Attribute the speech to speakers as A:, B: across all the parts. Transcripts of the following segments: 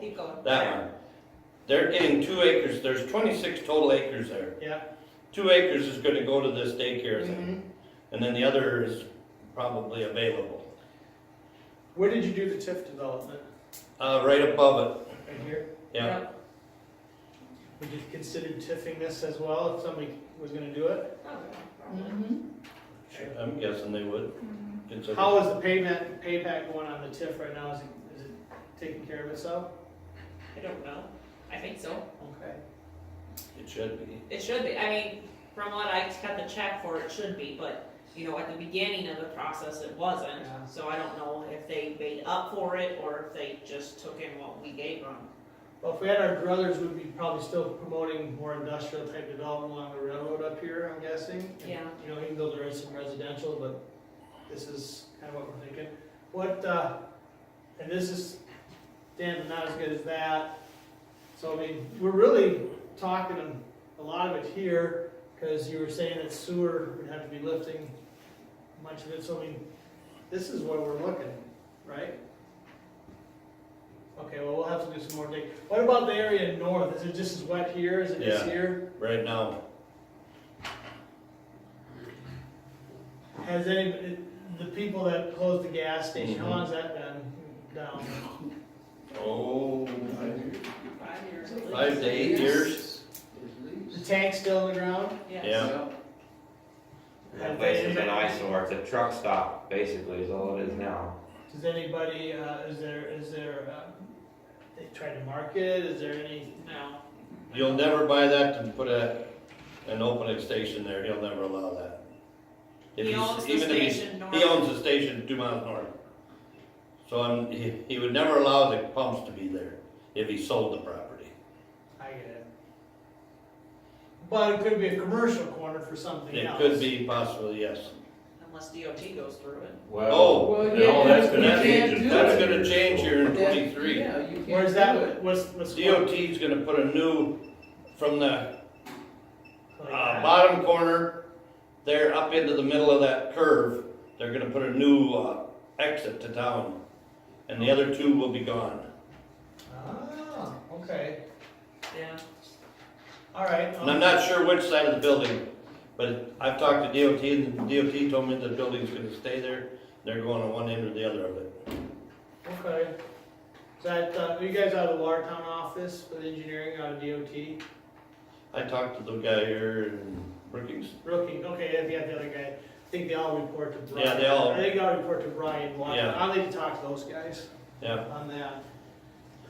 A: keep going.
B: that one. They're getting two acres, there's twenty-six total acres there.
A: Yeah.
B: Two acres is gonna go to this daycare thing,
C: Mm-hmm.
A: Mhm.
B: and then the other is probably available.
C: Where did you do the TIF development?
B: Uh, right above it,
C: Right here?
B: yeah.
C: Would you consider TIFing this as well if somebody was gonna do it?
A: Mhm.
B: I'm guessing they would
A: Mm-hmm.
B: consider.
C: How is the payment, payback going on the TIF right now? Is it, is it taking care of itself?
D: I don't know. I think so.
C: Okay.
B: It should be.
D: It should be. I mean, from what I got the check for, it should be, but, you know, at the beginning of the process, it wasn't.
C: Yeah.
D: So I don't know if they made up for it or if they just took in what we gave them.
C: Well, if we had our druthers, we'd be probably still promoting more industrial type development along the railroad up here, I'm guessing.
D: Yeah.
C: You know, even though there is some residential, but this is kind of what we're thinking. What, uh, and this is, Dan, not as good as that. So, I mean, we're really talking a lot of it here, because you were saying that sewer would have to be lifting much of it, so I mean, this is what we're looking, right? Okay, well, we'll have to do some more digging. What about the area north? Is it just as wet here as it is
B: Yeah.
C: here?
B: Right now,
C: Has any, the people that closed the gas station,
E: Mm-hmm.
C: how long's that been down?
B: oh,
D: Five years at least.
B: five to eight years.
C: The tank's still in the ground?
B: Yeah.
E: That place is an eyesore, it's a truck stop, basically, is all it is now.
C: Does anybody, uh, is there, is there, uh, they tried to market, is there any?
D: No.
B: You'll never buy that and put a, an opening station there, he'll never allow that. If
D: He
B: he's-
D: owns the
B: even if he's-
D: station north.
B: He owns the station two miles north. So I'm, he, he would never allow the pumps to be there if he sold the property.
C: I get it. But it could be a commercial corner for something
B: It
C: else.
B: could be possibly, yes.
D: Unless DOT goes through it.
B: Oh,
F: Well,
E: no,
F: yeah,
E: that's
F: you
E: gonna
F: can't
E: change in
F: do
B: that's
F: it.
B: gonna change here in
F: That-
B: twenty-three.
F: Yeah, you can't do it.
C: Where's that, what's, what's?
B: DOT's gonna put a new, from the, uh,
C: Like that?
B: bottom corner, there up into the middle of that curve, they're gonna put a new, uh, exit to town. And the other two will be gone.
C: Ah, okay,
D: Yeah.
C: all right.
B: And I'm not sure which side of the building, but I've talked to DOT, and DOT told me the building's gonna stay there. They're going to one end or the other of it.
C: Um, Okay. Is that, uh, are you guys out of the Watertown office with engineering out of DOT?
B: I talked to the guy here in Brookings.
C: Rookie, okay, yeah, yeah, the other guy, I think they all report to Brian.
B: Yeah, they all-
C: I think they all report to Brian, Watt.
B: Yeah.
C: I'll need to talk to those guys
B: Yeah,
C: on that.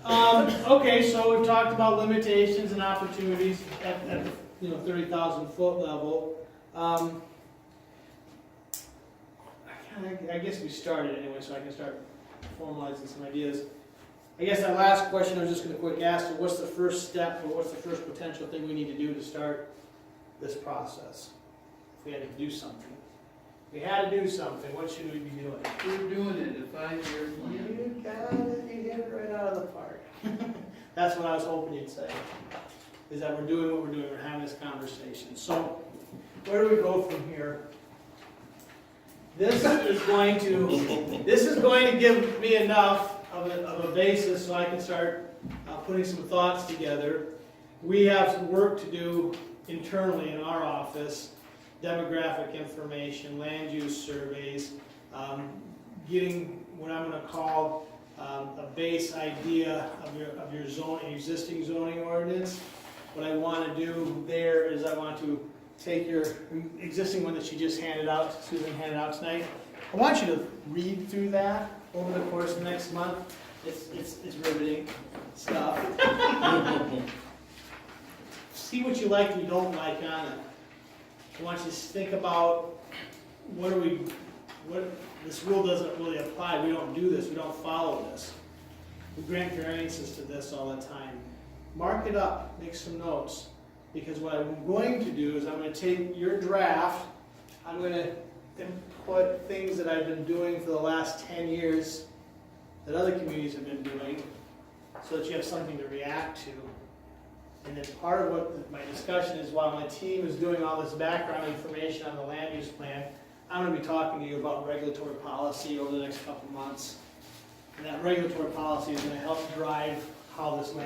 C: Um, okay, so we've talked about limitations and opportunities at, at, you know, thirty thousand foot level. Um, I kinda, I guess we started anyway, so I can start formalizing some ideas. I guess that last question I was just gonna quick ask, so what's the first step, or what's the first potential thing we need to do to start this process? If we had to do something. If we had to do something, what should we be doing?
F: We're doing it in a five-year plan.
C: You got it, you hit it right out of the park. That's what I was hoping you'd say, is that we're doing what we're doing, we're having this conversation. So, where do we go from here? This is going to, this is going to give me enough of a, of a basis so I can start uh, putting some thoughts together. We have some work to do internally in our office, demographic information, land use surveys, um, getting what I'm gonna call, um, a base idea of your, of your zoning, existing zoning ordinance. What I wanna do there is I want to take your existing one that you just handed out, Susan handed out tonight. I want you to read through that over the course of next month. It's, it's, it's riveting stuff. See what you like and you don't like on it. I want you to think about, what are we, what, this rule doesn't really apply, we don't do this, we don't follow this. We grant variances to this all the time. Mark it up, make some notes, because what I'm going to do is I'm gonna take your draft, I'm gonna input things that I've been doing for the last ten years that other communities have been doing, so that you have something to react to. And then part of what my discussion is, while my team is doing all this background information on the land use plan, I'm gonna be talking to you about regulatory policy over the next couple months. And that regulatory policy is gonna help drive how this